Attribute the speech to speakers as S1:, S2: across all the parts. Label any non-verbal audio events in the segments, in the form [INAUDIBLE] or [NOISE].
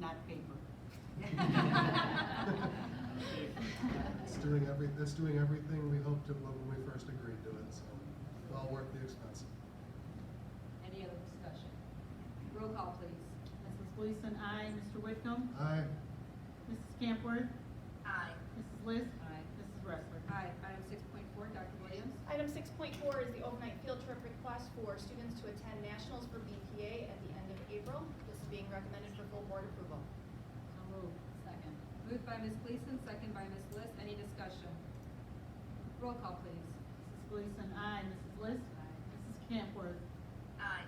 S1: not
S2: [LAUGHS]
S1: paper. [LAUGHS]
S3: It's doing every, that's doing everything we hoped it would when we first agreed to it, so well worth the expense.
S2: Any other discussion? Roll call, please.
S1: Mrs. Gleason, aye. Mr. Whitcomb?
S3: Aye,
S1: Mrs. Campworth?
S2: Aye.
S1: Mrs. List?
S2: Aye.
S1: Mrs. Wrestler?
S2: Aye. Item six point four, Dr. Williams.
S4: Item six point four is the overnight field trip request for students to attend nationals for BPA at the end of April. This is being recommended for full board approval.
S2: So moved. Second. Moved by Ms. Gleason, second by Ms. List. Any discussion? Roll call, please.
S1: Mrs. Gleason, aye. Mrs. List? Mrs. Campworth?
S2: Aye.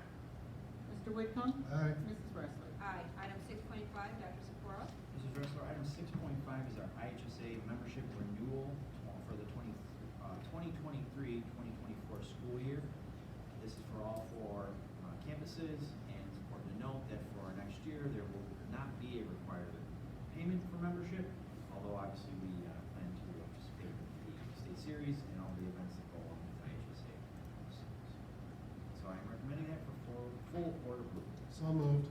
S1: Mr. Whitcomb?
S3: aye,
S1: Mrs. Wrestler?
S2: Aye. Item six point five, Dr. Sephora.
S5: Mrs. Dressler, item six point five is our IHSA membership renewal for the 20 uh, 2023-2024 school year. This is for all four uh, campuses, and it's important to note that for next year, there will not be a required payment for membership, although obviously we uh, plan to participate in the state series and all the events that go along with IHSA. So I am recommending that for full, full board approval.
S3: so moved,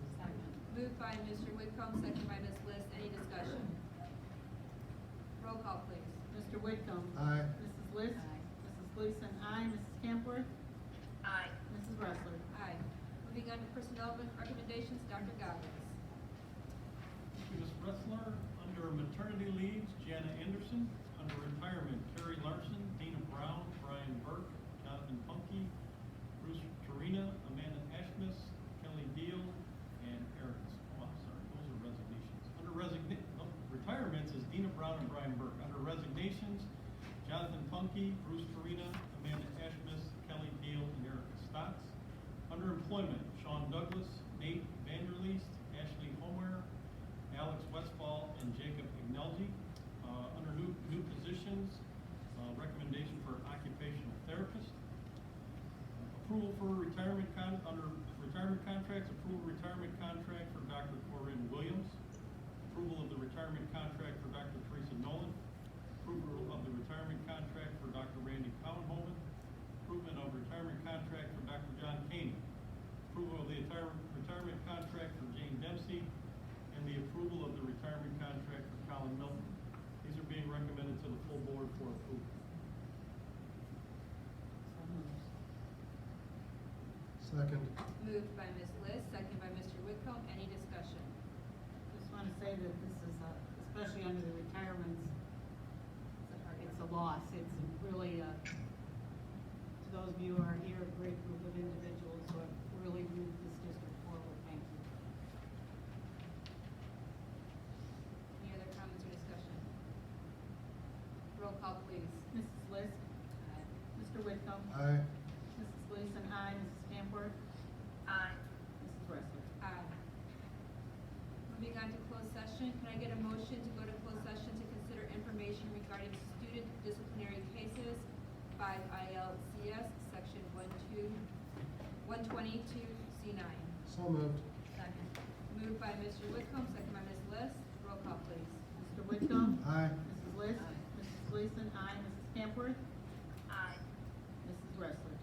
S2: Moved by Mr. Whitcomb, second by Ms. List. Any discussion? Roll call, please.
S1: Mr. Whitcomb?
S3: aye,
S1: Mrs. List? Mrs. Gleason, aye. Mrs. Campworth?
S2: Aye.
S1: Mrs. Wrestler?
S2: Aye. Moving on to personnel recommendations, Dr. Goggins.
S6: Thank you, Ms. Bressler. Under maternity leaves, Jana Anderson. Under retirement, Terry Larson, Dana Brown, Brian Burke, Jonathan Punky, Bruce Torina, Amanda Ashmus, Kelly Deal, and Aaron. Oh, I'm sorry, those are resignations. Under resign, retirements is Dina Brown and Brian Burke. Under resignations, Jonathan Punky, Bruce Torina, Amanda Ashmus, Kelly Deal, and Erica Stotts. Under employment, Sean Douglas, Nate Vanderleest, Ashley Homer, Alex Westfall, and Jacob Ignelzi. Uh, under new, new positions, uh, recommendation for occupational therapist. Approval for retirement con, under retirement contracts, approval of retirement contract for Dr. Corinne Williams. Approval of the retirement contract for Dr. Teresa Nolan. Approval of the retirement contract for Dr. Randy Collins. Approval of retirement contract for Dr. John Caney. Approval of the retirement, retirement contract for Jane Dempsey. And the approval of the retirement contract for Colin Milton. These are being recommended to the full board for approval.
S3: second,
S2: Moved by Ms. List, second by Mr. Whitcomb. Any discussion?
S1: Just want to say that this is, a- especially under the retirements, it's a loss. It's really a, to those of you who are here, a great group of individuals who have really moved this district forward. Thank you.
S2: Any other comments or discussion? Roll call, please.
S1: Mrs. List? Mr. Whitcomb?
S3: aye,
S1: Mrs. Gleason, aye. Mrs. Campworth?
S2: Aye.
S1: Mrs. Wrestler?
S2: Aye. Moving on to closed session, can I get a motion to go to closed session to consider information regarding student disciplinary cases five ILCS, section one two, one twenty-two C nine?
S3: so moved,
S2: Second. Moved by Mr. Whitcomb, second by Ms. List. Roll call, please.
S1: Mr. Whitcomb?
S3: aye,
S1: Mrs. List? Mrs. Gleason, aye. Mrs. Campworth?
S2: Aye.
S1: Mrs. Wrestler?